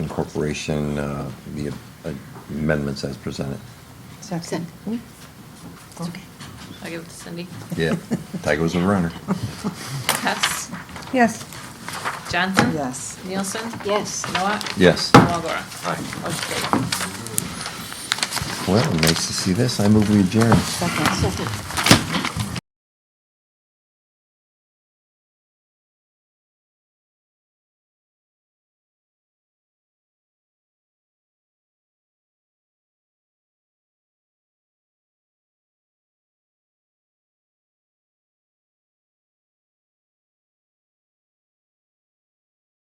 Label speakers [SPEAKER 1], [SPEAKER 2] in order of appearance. [SPEAKER 1] incorporation, uh, the amendments as presented.
[SPEAKER 2] Second.
[SPEAKER 3] Hmm? It's okay. I'll give it to Cindy.
[SPEAKER 1] Yeah, Tiger was a runner.
[SPEAKER 3] Hess,
[SPEAKER 2] Yes.
[SPEAKER 3] Johnson?
[SPEAKER 2] Yes.
[SPEAKER 3] Nielsen?
[SPEAKER 4] Yes.
[SPEAKER 3] Noah?
[SPEAKER 1] Yes.
[SPEAKER 3] And Walagora?
[SPEAKER 1] Aye.
[SPEAKER 3] Motion carried.
[SPEAKER 1] Well, nice to see this. I move we adjourn.
[SPEAKER 2] Second.
[SPEAKER 4] Second.